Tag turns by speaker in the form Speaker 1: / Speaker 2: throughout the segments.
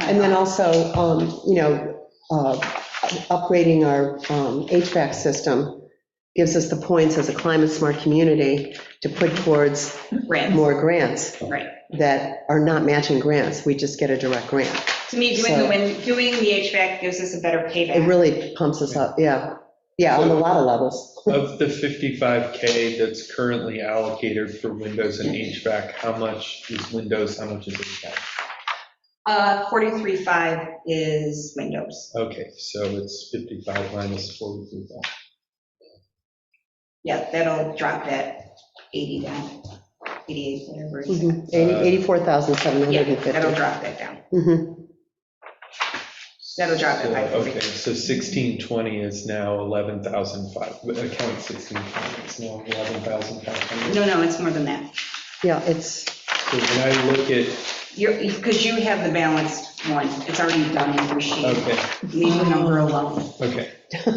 Speaker 1: And then also, um, you know, uh, upgrading our um, HVAC system gives us the points as a climate-smart community to put towards
Speaker 2: Grants,
Speaker 1: more grants
Speaker 2: right.
Speaker 1: that are not matching grants. We just get a direct grant.
Speaker 2: To me, doing, the- when doing the HVAC gives us a better
Speaker 1: It
Speaker 2: payback.
Speaker 1: really pumps us up, yeah. Yeah, on a lot of levels.
Speaker 3: Of the 55K that's currently allocated for windows and HVAC, how much is windows, how much is HVAC?
Speaker 2: Uh, 43.5 is windows.
Speaker 3: Okay, so it's 55 minus 43,000.
Speaker 2: Yeah, that'll drop that 80 down, 88, whatever. it is.
Speaker 3: Mm-hmm.
Speaker 1: Mhm. Eighty-
Speaker 2: Yeah, that'll
Speaker 1: 84,750.
Speaker 2: drop that down.
Speaker 1: Mhm.
Speaker 2: That'll drop it by
Speaker 3: So,
Speaker 2: 40.
Speaker 3: Okay, so 1620 is now 11,005, account 1620 is now 11,500.
Speaker 2: No, no, it's more than that.
Speaker 1: Yeah, it's,
Speaker 3: So when I look at,
Speaker 2: You're, because you have the balanced one. It's already done in your sheet.
Speaker 3: okay,
Speaker 2: Leave the number alone.
Speaker 3: okay,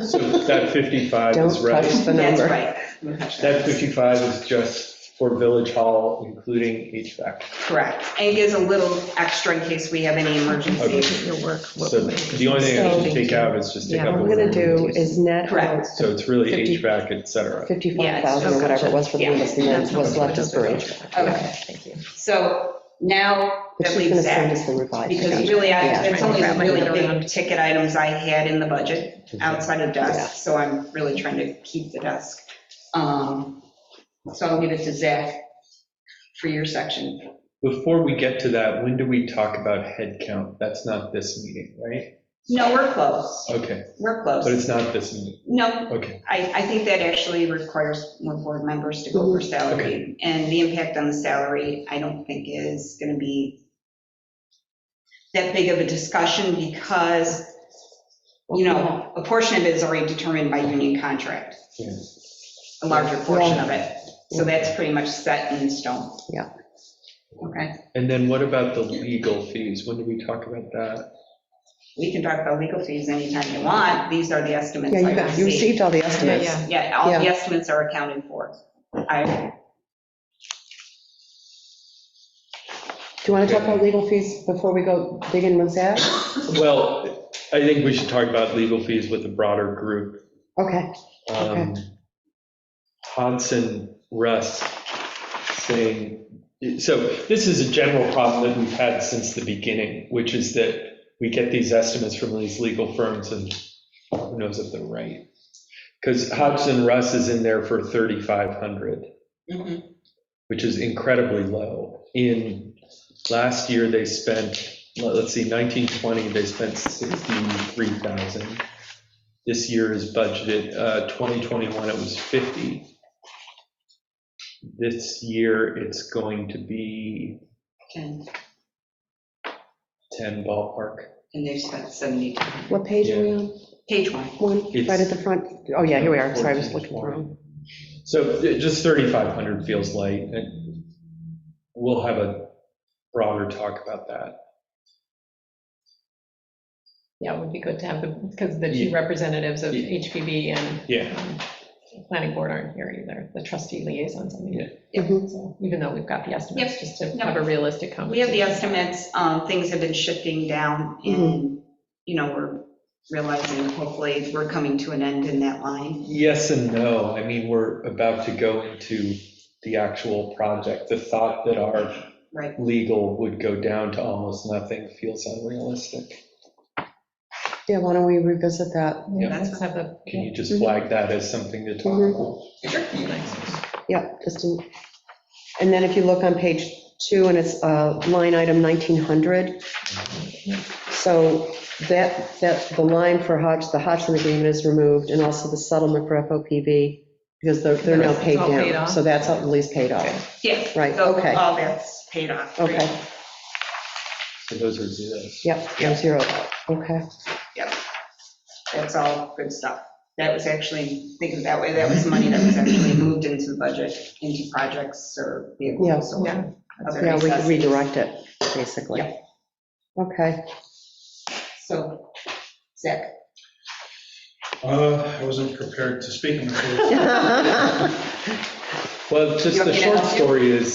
Speaker 3: so that 55
Speaker 1: don't
Speaker 3: is right.
Speaker 1: touch the
Speaker 2: That's
Speaker 1: number.
Speaker 2: right. We'll touch that.
Speaker 3: That 55 is just for Village Hall, including HVAC.
Speaker 2: Correct. And it gives a little extra in case we have any emergencies.
Speaker 4: Your work. what
Speaker 3: So
Speaker 4: we-
Speaker 3: the only thing I should take out is just take
Speaker 1: What
Speaker 3: out the
Speaker 1: we're
Speaker 3: word.
Speaker 1: going to do is net out
Speaker 2: Correct.
Speaker 3: So it's really
Speaker 1: 50.
Speaker 3: HVAC, et cetera.
Speaker 1: 55,000 or whatever it was for the
Speaker 2: Yeah.
Speaker 1: windows, and then what's left is for HVAC.
Speaker 2: Okay.
Speaker 4: Thank you.
Speaker 2: So now that
Speaker 1: But she's going to
Speaker 2: leaves
Speaker 1: send
Speaker 2: that,
Speaker 1: us the revised.
Speaker 2: because
Speaker 1: schedule.
Speaker 2: really,
Speaker 1: Yeah.
Speaker 2: I- that's only the really
Speaker 4: Wrap my head around.
Speaker 2: big ticket items I had in the budget outside of desk, so I'm really trying to keep the desk. Um, So I'll leave it to Zach for your section.
Speaker 3: Before we get to that, when do we talk about headcount? That's not this meeting, right?
Speaker 2: No, we're close.
Speaker 3: Okay,
Speaker 2: We're
Speaker 3: but
Speaker 2: close.
Speaker 3: it's not this meeting,
Speaker 2: No,
Speaker 3: okay.
Speaker 2: I, I think that actually requires more board members to go over
Speaker 3: Mm-hmm.
Speaker 2: salary. And the impact on the salary, I don't think is going to be that big of a discussion because, you know, a portion of it is already determined by union contract.
Speaker 3: Yeah.
Speaker 2: A larger portion of it. So that's pretty much set in stone.
Speaker 1: Yeah.
Speaker 2: Okay,
Speaker 3: And then what about the legal fees? When do we talk about that?
Speaker 2: we can talk about legal fees anytime you want. These are the estimates
Speaker 1: Yeah,
Speaker 2: I
Speaker 1: you got, you
Speaker 2: received.
Speaker 1: received all the
Speaker 4: Yeah,
Speaker 1: estimates.
Speaker 4: yeah.
Speaker 2: Yeah, all the
Speaker 1: Yeah.
Speaker 2: estimates are accounted for. I,
Speaker 1: Do you want to talk about legal fees before we go dig in with that?
Speaker 3: Well, I think we should talk about legal fees with a broader group.
Speaker 1: Okay,
Speaker 3: Um, Hodson, Russ saying, so this is a general problem that we've had since the beginning, which is that we get these estimates from these legal firms and who knows if they're right. Because Hodgson Russ is in there for 3,500,
Speaker 2: Mhm.
Speaker 3: which is incredibly low. In, last year, they spent, let- let's see, 1920, they spent 63,000. This year is budgeted, uh, 2021, it was 50. This year, it's going to be
Speaker 2: and
Speaker 3: 10 ballpark.
Speaker 2: and they've spent 72.
Speaker 1: what page are we on?
Speaker 2: Page one.
Speaker 1: One, right at
Speaker 3: It's-
Speaker 1: the front? Oh, yeah, here we are, sorry, I was looking wrong.
Speaker 3: So uh, just 3,500 feels light, and we'll have a broader talk about that.
Speaker 4: Yeah, it would be good to have the, because the two representatives of
Speaker 3: Yeah.
Speaker 4: HPB and
Speaker 3: Yeah,
Speaker 4: um, planning board aren't here either, the trustee liaisons, I mean.
Speaker 2: Yeah.
Speaker 1: Mhm.
Speaker 4: So Even though we've got the estimates,
Speaker 2: Yep.
Speaker 4: just to
Speaker 2: No.
Speaker 4: have a realistic
Speaker 2: We have
Speaker 4: conversation.
Speaker 2: the estimates, um, things have been shifting down,
Speaker 1: Mm-hmm.
Speaker 2: and, you know, we're realizing hopefully we're coming to an end in that line.
Speaker 3: yes and no. I mean, we're about to go into the actual project. The thought that our
Speaker 2: Right.
Speaker 3: legal would go down to almost nothing feels unrealistic.
Speaker 1: Yeah, why don't we revisit that?
Speaker 4: Yeah,
Speaker 3: Yeah.
Speaker 4: Let's have the.
Speaker 3: Can you just flag that as something to talk
Speaker 1: Mhm.
Speaker 3: about?
Speaker 1: Yeah, just, in- and then if you look on page two, and it's uh, line item 1900. So that, that, the line for Hodge, the Hodgson agreement is removed, and also the settlement for FOPV, because they're, they're now
Speaker 4: It's
Speaker 1: paid
Speaker 4: all paid
Speaker 1: down.
Speaker 4: off?
Speaker 1: So that's at least paid off.
Speaker 2: Yeah.
Speaker 1: Right,
Speaker 2: so
Speaker 1: okay.
Speaker 2: All that's paid off.
Speaker 1: Okay.
Speaker 3: So those are zeros.
Speaker 1: Yep, no zero, okay.
Speaker 2: That's all good stuff. That was actually, think of it that way, that was money that was actually moved into the budget, into projects or
Speaker 1: Yeah.
Speaker 2: vehicles. or
Speaker 4: Yeah.
Speaker 2: other
Speaker 1: Yeah, we could
Speaker 2: necessities.
Speaker 1: redirect it, basically.
Speaker 2: Yeah.
Speaker 1: Okay,
Speaker 2: So, Zach,
Speaker 5: Uh, I wasn't prepared to speak on this.
Speaker 3: Well, just
Speaker 2: You want
Speaker 3: the
Speaker 2: me to
Speaker 3: short
Speaker 2: help you?
Speaker 3: story is,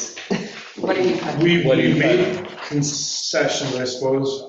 Speaker 2: what are you?
Speaker 5: We
Speaker 3: What do
Speaker 5: we
Speaker 3: you think?
Speaker 5: made concessions, I suppose.